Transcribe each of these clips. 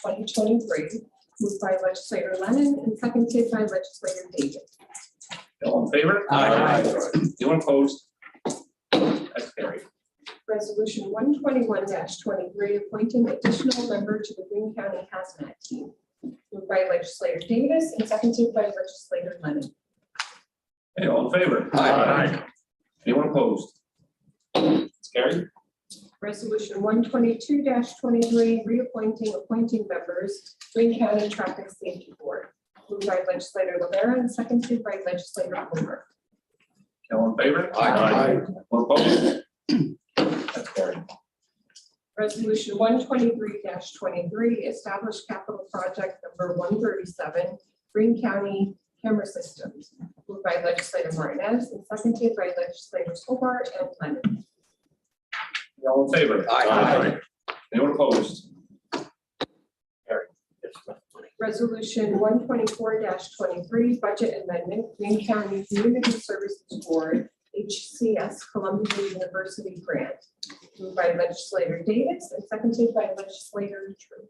twenty twenty-three, moved by legislator Lennon and seconded by legislator David. All in favor? Aye. Anyone opposed? That's carried. Resolution one twenty-one twenty-three, appointing additional member to the Green County Hazmat Team, moved by legislator Davis and seconded by legislator Lennon. Hey, all in favor? Aye. Anyone opposed? That's carried. Resolution one twenty-two twenty-three, reappointing appointing members, Green County Traffic Safety Board, moved by legislator Rivera and seconded by legislator Homer. All in favor? Aye. Anyone opposed? That's carried. Resolution one twenty-three twenty-three, establish capital project number one thirty-seven, Green County Camera Systems, moved by legislator Martinez and seconded by legislators Hobart and Lennon. All in favor? Aye. Anyone opposed? Resolution one twenty-four twenty-three, budget amendment, Green County Community Services Board, HCS Columbia University Grant, moved by legislator Davis and seconded by legislator Tru.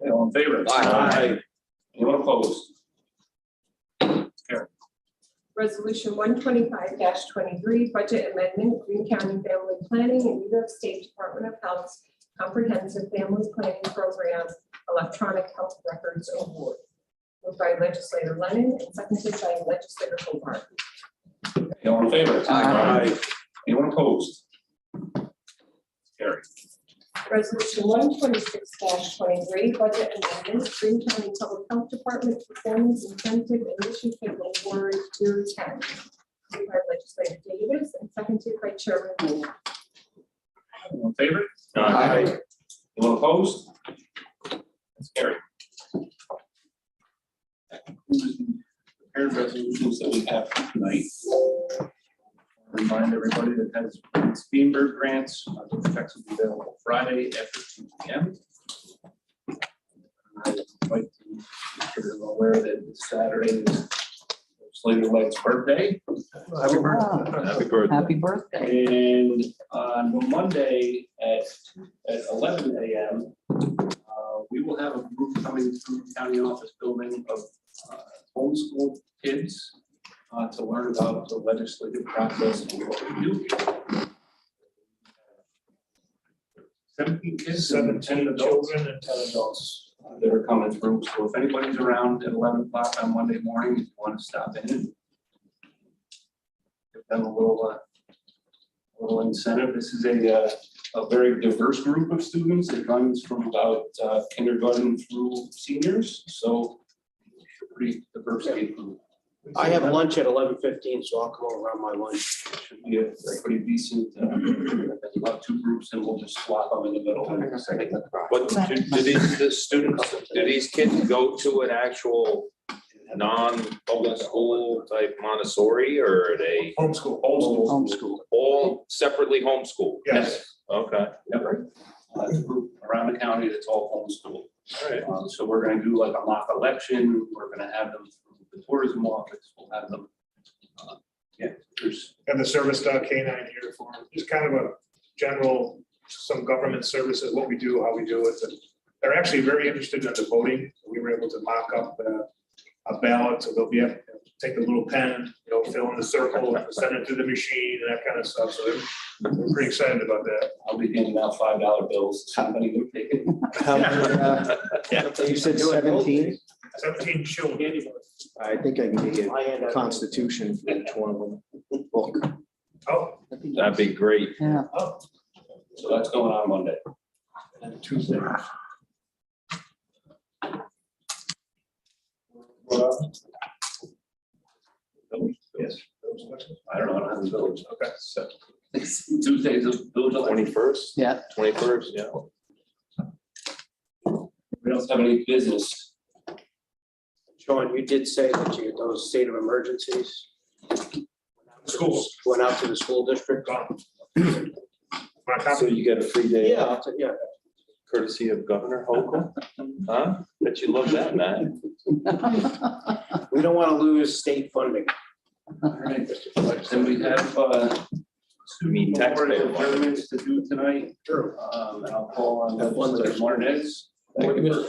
Hey, All in favor? Aye. Anyone opposed? Resolution one twenty-five twenty-three, budget amendment, Green County Family Planning and New York State Department of Health's Comprehensive Family Planning Program Electronic Health Records Award, moved by legislator Lennon and seconded by legislator Hobart. Hey, All in favor? Aye. Anyone opposed? Carried. Resolution one twenty-six twenty-three, budget amendment, Green County Public Health Department performance incentive initiative award year ten. Moved by legislator Davis and seconded by chairman Moore. All in favor? uh, Aye. Anyone opposed? That's carried. That concludes the prepared resolutions that we have for tonight. Remind everybody that has Beamer grants, uh, the checks will be available Friday after two P M. I'd like to make sure you're aware that it's Saturday is Slater Light's birthday. Happy birthday. Happy birthday. Oh, Happy birthday. And on Monday at, at eleven AM, uh, we will have a group coming through the county office building of uh, homeschool kids uh, to learn about the legislative process and what we do. here. Seventeen kids and ten adults. children and ten adults. uh, That are coming through. So if anybody's around at eleven o'clock on Monday morning, if you want to stop in and give them a little, uh, little incentive. This is a, uh, a very diverse group of students. It runs from about uh, kindergarten through seniors, so pretty diverse age group. I have lunch at eleven fifteen, so I'll come over around my lunch. Should be a a pretty decent, uh, about two groups and we'll just swap them in the middle. But do do these, the students, do these kids go to an actual non-public school type Montessori or are they Homeschool. Homeschool. Homeschool. all separately homeschooled? Yes. Okay. Yep. Uh, it's a group Around the county that's all homeschooled. All right. Um, So we're gonna do like a mock election, we're gonna have them through the tourism office, we'll have them. uh, Yeah, there's, And the service dog canine uniform, just kind of a general, some government services, what we do, how we do it. And They're actually very interested in the voting. We were able to mock up uh, a ballot, so they'll be, able to take a little pen, you know, fill in the circle, send it to the machine and that kind of stuff. So they're they're pretty excited about that. I'll be handing out five dollar bills, to somebody who take it. You said seventeen? Seventeen children. I think I can get you I end a up. constitution for each one of them. Book. Oh, That'd be great. Yeah. So that's going on Monday. And Tuesday. yes. I don't know, I don't have the village, Okay. so. Tuesday's a village. election. Twenty-first? Yeah. Twenty-first, yeah. We don't have any business. Sean, you did say that you, those state of emergencies. Schools. Went out to the school district. My copy. So you get a free day Yeah, off I'll t- yeah. courtesy of Governor Hochul? Huh? Bet you love that, man. We don't want to lose state funding. All right. Then we have, uh, You mean Memorial taxpayer money. adjournments to do tonight. Sure. Um, and I'll call on That one's Legislator our- Martinez Thank you, Mr.